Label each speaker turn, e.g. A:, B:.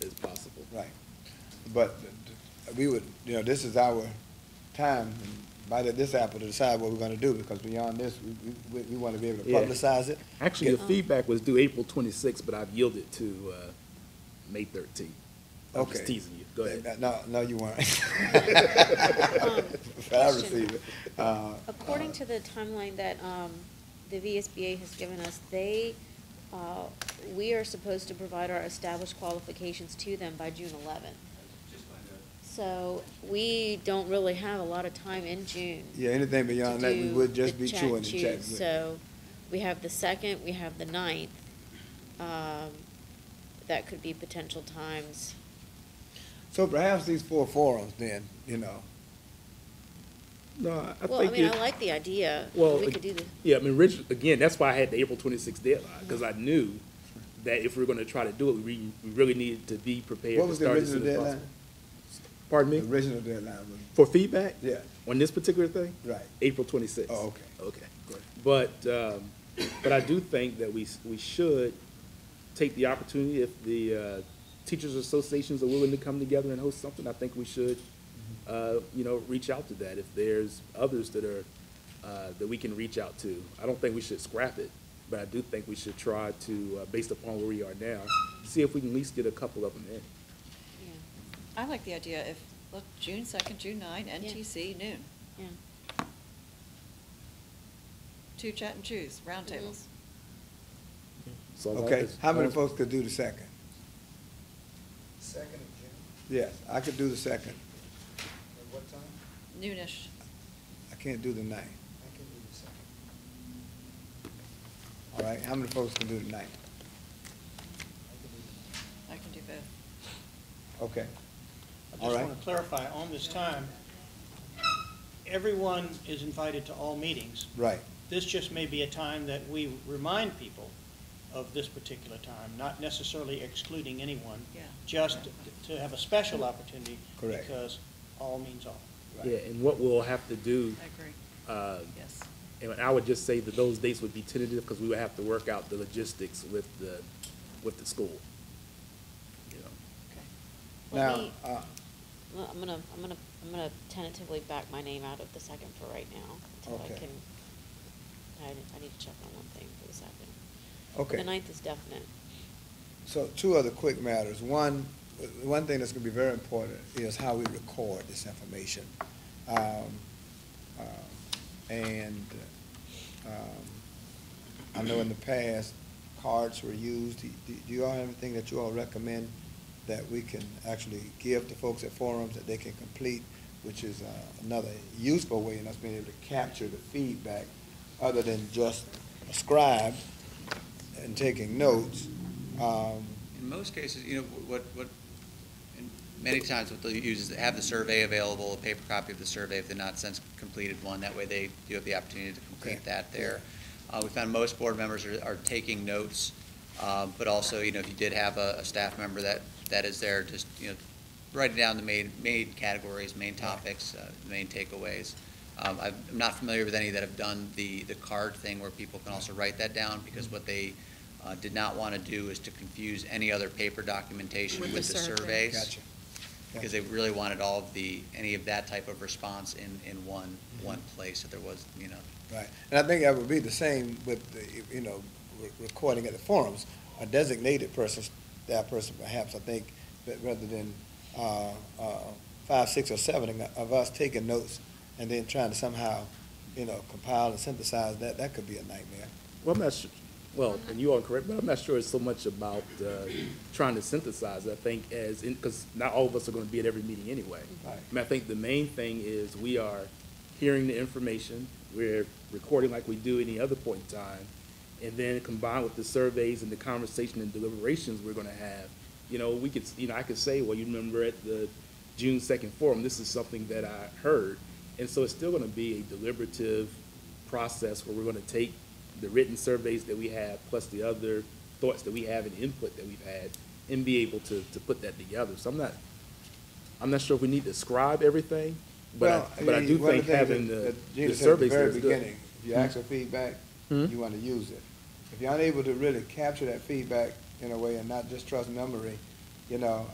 A: Right. But we would, you know, this is our time, by the- this apple to decide what we're gonna do, because beyond this, we, we, we wanna be able to
B: Yeah.
A: publicize it.
B: Actually, the feedback was due April twenty-sixth, but I've yielded to, uh, May thirteenth. I'm just
A: Okay.
B: teasing you. Go ahead.
A: No, no, you weren't.
C: Um,
A: But I
C: question.
A: received it. Uh,
C: According to the timeline that um, the VSBA has given us, they, uh, we are supposed to provide our established qualifications to them by June eleventh. So we don't really have a lot of time in June.
A: uh, Yeah, anything
C: to
A: beyond that, we
C: do
A: would just
C: the
A: be
C: chat
A: chewing the
C: choose.
A: chat. with.
C: So we have the second, we have the ninth. Um, That could be potential times.
A: So perhaps these four forums then, you know,
B: No, I think.
C: Well, I mean, I
B: it-
C: like the idea.
B: Well,
C: We could do the,
B: Yeah, I mean, orig- again, that's why I had the April twenty-sixth deadline, because I knew that if we were gonna try to do it, we, we really needed to be prepared
A: What
B: to
A: was the
B: start as soon
A: original
B: as
A: deadline?
B: possible. Pardon
A: the
B: me?
A: original deadline was,
B: For feedback?
A: yeah,
B: On this particular thing?
A: right.
B: April twenty-sixth.
A: Oh, okay.
B: Okay.
A: Good.
B: But, um, but I do think that we, we should take the opportunity, if the, uh, teachers associations are willing to come together and host something, I think we should, uh, you know, reach out to that, if there's others that are, uh, that we can reach out to. I don't think we should scrap it, but I do think we should try to, uh, based upon where we are now, see if we can at least get a couple of them in.
C: yeah,
D: I like the idea if, look, June second, June nine, NTC noon,
C: yeah.
D: two chat and choose, roundtables.
B: So long
A: Okay,
B: as-
A: how many
B: long as-
A: folks could do the second?
E: Second of June,
A: Yes, I could do the second.
E: at what time?
D: Noonish.
A: I can't do the ninth.
E: I can do the second.
A: All right, how many folks can do the ninth?
E: I can do the second.
D: I can do both.
A: Okay.
F: I
A: All
F: just
A: right.
F: want to clarify, on this time, everyone is invited to all meetings.
A: Right,
F: This just may be a time that we remind people of this particular time, not necessarily excluding anyone.
D: Yeah.
F: Just to have a special opportunity.
A: Correct.
F: Because all means all.
B: Yeah, and what we'll have to do,
D: I agree,
B: uh,
D: yes.
B: And I would just say that those dates would be tentative because we would have to work out the logistics with the, with the school. You know,
C: Let
A: now,
C: me-
A: uh,
C: Well, I'm gonna, I'm gonna, I'm gonna tentatively back my name out of the second for right now, until I
A: Okay.
C: can, I, I need to check on one thing for the second. The
A: okay,
C: ninth is definite.
A: so two other quick matters. One, uh, one thing that's gonna be very important is how we record this information. Um, um, And, um, I know in the past, cards were used. Do do you all have anything that you all recommend that we can actually give to folks at forums that they can complete, which is uh, another useful way in us being able to capture the feedback other than just scribe and taking notes? Um,
G: In most cases, you know, what, what, and many times what they'll use is they have the survey available, a paper copy of the survey if they're not since completed one. That way they do have the opportunity to
A: Okay.
G: complete that there. Uh, we found most board members are, are taking notes, uh, but also, you know, if you did have a, a staff member that, that is there, just, you know, writing down the main, main categories, main topics, uh, main takeaways. Um, I'm I'm not familiar with any that have done the, the card thing where people can also write that down, because what they uh, did not want to do is to confuse any other paper documentation with the surveys.
A: Gotcha.
G: Because they really wanted all of the, any of that type of response in, in one, one place, that there was, you know,
A: Right, and I think that would be the same with, the, you know, re- recording at the forums, a designated person, that person perhaps, I think, that rather than, uh, uh, five, six, or seven of us taking notes and then trying to somehow, you know, compile and synthesize that, that could be a nightmare.
B: well, I'm not su, well, and you are correct, but I'm not sure it's so much about, uh, trying to synthesize, I think, as, in, because not all of us are gonna be at every meeting anyway.
A: Right.
B: And I think the main thing is we are hearing the information, we're recording like we do any other point in time, and then combined with the surveys and the conversation and deliberations we're gonna have, you know, we could, you know, I could say, well, you remember at the June second forum, this is something that I heard. And so it's still gonna be a deliberative process where we're gonna take the written surveys that we have, plus the other thoughts that we have and input that we've had, and be able to, to put that together. So I'm not, I'm not sure if we need to scribe everything, but
A: Well,
B: I, but I do
A: mean, one
B: think
A: of the things
B: having
A: that-
B: the,
A: that Gina
B: the
A: said at
B: surveys there
A: very
B: is good. Mm-hmm.
A: beginning, If you ask for feedback,
B: Hmm?
A: you want to use it. If you're unable to really capture that feedback in a way and not just trust memory, you know,